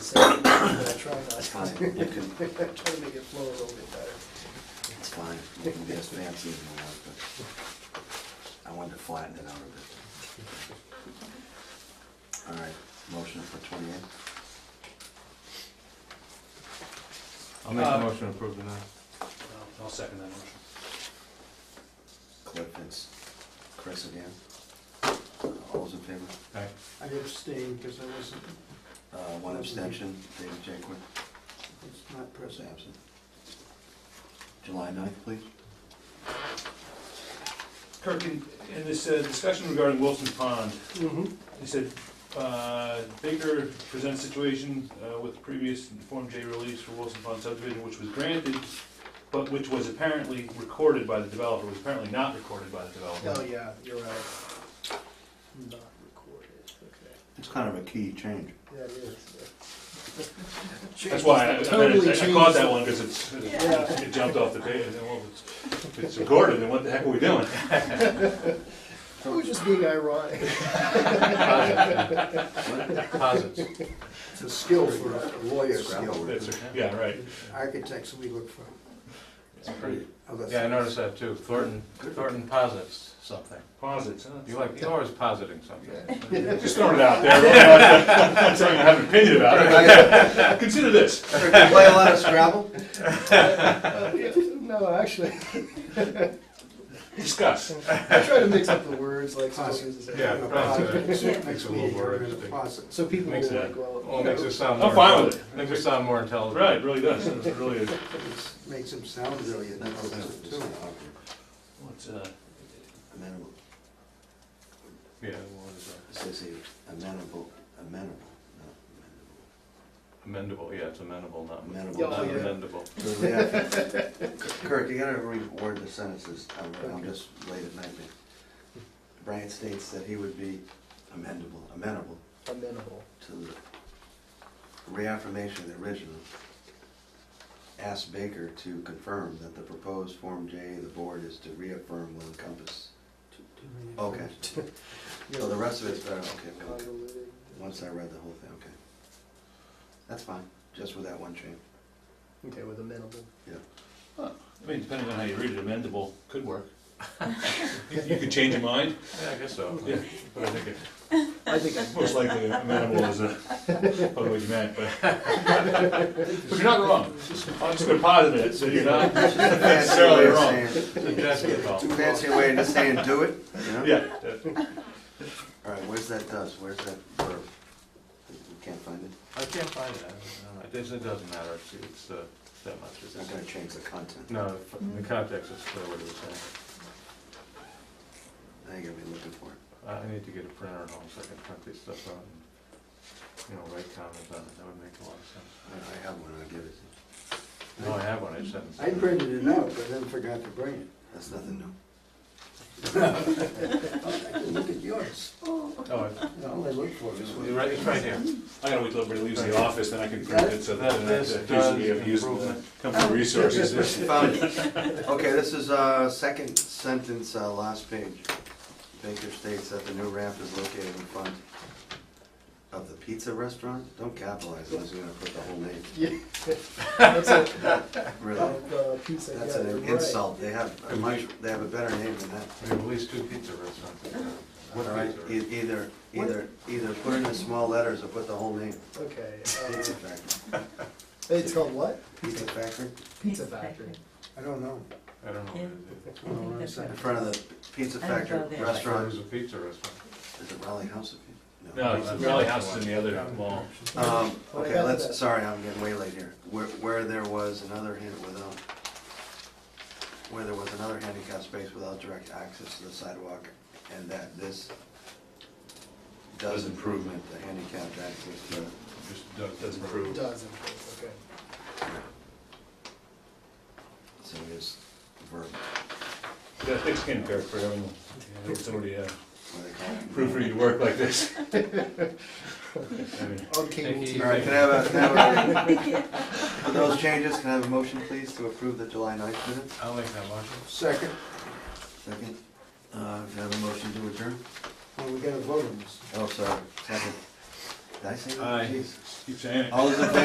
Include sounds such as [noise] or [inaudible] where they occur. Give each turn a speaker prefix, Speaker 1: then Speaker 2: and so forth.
Speaker 1: fine, you can,
Speaker 2: Try to make it flow a little bit better.
Speaker 1: it's fine, you can be as fancy as you want, but I wanted to flatten it out a bit. All right, motion for twenty-eight,
Speaker 3: I'll make a
Speaker 4: Uh,
Speaker 3: motion to approve the minutes.
Speaker 4: I'll second that motion.
Speaker 1: Cliff, it's Chris again. Uh, All those in favor?
Speaker 4: Okay.
Speaker 2: I abstained because I wasn't,
Speaker 1: Uh, one abstention, David Jaquith.
Speaker 2: it's not
Speaker 1: Chris
Speaker 2: present.
Speaker 1: absent. July 9th, please.
Speaker 4: Kirk, in in this uh, discussion regarding Wilson Pond,
Speaker 2: Mm-hmm.
Speaker 4: he said, uh, Baker presents situation uh, with previous Form J release for Wilson Pond subdivision, which was granted, but which was apparently recorded by the developer, was apparently not recorded by the
Speaker 2: Oh,
Speaker 4: developer.
Speaker 2: yeah, you're right. Not recorded, okay.
Speaker 1: It's kind of a key change.
Speaker 2: That is.
Speaker 4: That's why I- I
Speaker 2: Totally
Speaker 4: I- I caught
Speaker 2: changed
Speaker 4: that
Speaker 2: it.
Speaker 4: one, because it's,
Speaker 2: Yeah.
Speaker 4: it jumped off the page, and well, it's- if it's recorded, then what the heck are we doing?
Speaker 2: I was just being ironic.
Speaker 3: Posits.
Speaker 5: It's a skill for a lawyer skill.
Speaker 4: That's, yeah, right.
Speaker 5: Architects, we look for
Speaker 2: Oh,
Speaker 5: other
Speaker 3: Yeah, I
Speaker 5: things.
Speaker 3: noticed that too. Thornton, Thornton posits something.
Speaker 4: Posits, huh?
Speaker 3: You like, you're always positing something.
Speaker 4: Just throwing
Speaker 2: [laughs]
Speaker 4: it out there. I'm not saying I have an opinion about it. [laughs] Consider this.
Speaker 1: Play a lot of Scrabble?
Speaker 2: [laughs] No, actually,
Speaker 4: Discuss.
Speaker 2: I try to mix up the words like. sometimes it's-
Speaker 3: Yeah, right. Makes
Speaker 5: Next
Speaker 3: it a little
Speaker 5: meeting,
Speaker 3: more
Speaker 5: we're in the
Speaker 3: interesting.
Speaker 5: process.
Speaker 2: So people will
Speaker 4: Makes it-
Speaker 2: like,
Speaker 3: Well,
Speaker 2: well.
Speaker 3: it makes it sound more.
Speaker 4: I'm fine with
Speaker 3: Makes it sound more intelligent.
Speaker 4: Right, it really does. It's really, a- well,
Speaker 5: It's- Makes them sound really intelligent too.
Speaker 4: it's, uh,
Speaker 1: Amenable,
Speaker 3: Yeah, what is
Speaker 1: it says here, amenable, amenable, not
Speaker 3: that? Amendable, yeah, it's amendable, not
Speaker 1: Amendable.
Speaker 3: not
Speaker 2: Oh, yeah.
Speaker 3: amendable.
Speaker 1: amendable. [laughs] Kirk, you gotta reword the sentences, I'm, I'm just late at night here. Brian states that he would be amendable, amenable
Speaker 2: Amenable.
Speaker 1: to the reaffirmation of the original. Ask Baker to confirm that the proposed Form J, the board is to reaffirm will encompass. Okay, so the rest of it's better, okay, okay.
Speaker 2: Convoluted.
Speaker 1: Once I read the whole thing, okay. That's fine, just with that one change.
Speaker 2: Okay, with amenable.
Speaker 4: I mean, depending on how you read it, amendable could work. [laughs] You you could change your mind.
Speaker 3: Yeah, I guess so.
Speaker 4: Yeah, but I think it-
Speaker 2: I think,
Speaker 4: most likely amendable is a, probably what you meant, but. But [laughs] you're not wrong. I'm just gonna posit it, so you're not necessarily wrong. Suggested wrong.
Speaker 1: Too fancy way of saying do it, you know?
Speaker 4: Yeah, that-
Speaker 1: All right, where's that does, where's that verb? We can't find it,
Speaker 3: I can't find it. I don't know. It doesn't, it doesn't matter. It's, it's, uh, that much.
Speaker 1: it's not gonna change the content.
Speaker 3: No, in context, it's clear what he was saying.
Speaker 1: Now you're gonna be looking for it.
Speaker 3: I I need to get a printer at home so I can print this stuff out and, you know, write comments on it. That would make a lot of sense.
Speaker 1: All right, I have one, I'll give it to you.
Speaker 3: No, I have one. I just haven't.
Speaker 5: I printed it out, but then forgot to bring it.
Speaker 1: That's nothing new.
Speaker 5: Look at yours.
Speaker 3: Oh, I-
Speaker 5: All I look for is.
Speaker 3: it's right, it's right here.
Speaker 4: I gotta wait till everybody leaves the office, then I can print it, so that,
Speaker 3: This
Speaker 4: that uh,
Speaker 3: does
Speaker 4: usually of use
Speaker 3: improvement.
Speaker 4: company resources.
Speaker 1: Found it. Okay, this is, uh, second sentence, uh, last page. Baker states that the new ramp is located in front of the pizza restaurant? Don't capitalize unless you're gonna put the whole name,
Speaker 2: yeah. [laughs] That's it.
Speaker 1: really.
Speaker 2: Of, uh, pizza,
Speaker 1: That's
Speaker 2: yeah, you're
Speaker 1: an
Speaker 2: right.
Speaker 1: insult, they have a much, they have a better name than that.
Speaker 3: We have at least two pizza restaurants. in town.
Speaker 1: All right,
Speaker 3: Pizza
Speaker 1: e- either, either, either put in the small letters or put the whole name.
Speaker 2: Okay,
Speaker 1: Pizza
Speaker 2: uh,
Speaker 1: Factory,
Speaker 2: it's called what?
Speaker 1: Pizza Factory,
Speaker 2: Pizza Factory.
Speaker 5: I don't know.
Speaker 3: restaurant. I don't know what
Speaker 5: I don't know what I'm
Speaker 1: in
Speaker 5: saying.
Speaker 1: front of the Pizza
Speaker 6: I don't
Speaker 1: Factory
Speaker 6: go there.
Speaker 3: it is. It
Speaker 1: restaurant,
Speaker 3: was a pizza restaurant.
Speaker 1: is it Raleigh House of Pizza?
Speaker 4: No, it's the Raleigh House is in the other mall.
Speaker 1: Um, okay,
Speaker 2: Yeah.
Speaker 1: let's, sorry, I'm getting way late here. Where, where there was another hand without, where there was another handicap space without direct access to the sidewalk, and that this does improvement, the handicapped access to,
Speaker 3: Just does-
Speaker 4: Doesn't prove.
Speaker 2: Dozen, okay.
Speaker 1: so it is verb,
Speaker 4: Yeah, thick skin, Kirk, for having, having somebody uh,
Speaker 1: what do they call it?
Speaker 4: proofread your work like this. I mean,
Speaker 2: On cable
Speaker 3: Thank
Speaker 2: TV.
Speaker 3: you.
Speaker 1: All right, can I have a, can I have a, for those changes, can I have a motion, please, to approve the July 9th minutes?
Speaker 3: I'll make that motion.
Speaker 5: Second,
Speaker 1: Second. Uh, can I have a motion to adjourn?
Speaker 5: well, we gotta vote on this.
Speaker 1: Oh, sorry, second. Did I say that?
Speaker 3: Aye.
Speaker 1: Jeez.
Speaker 4: Keep saying it.
Speaker 1: All those in favor?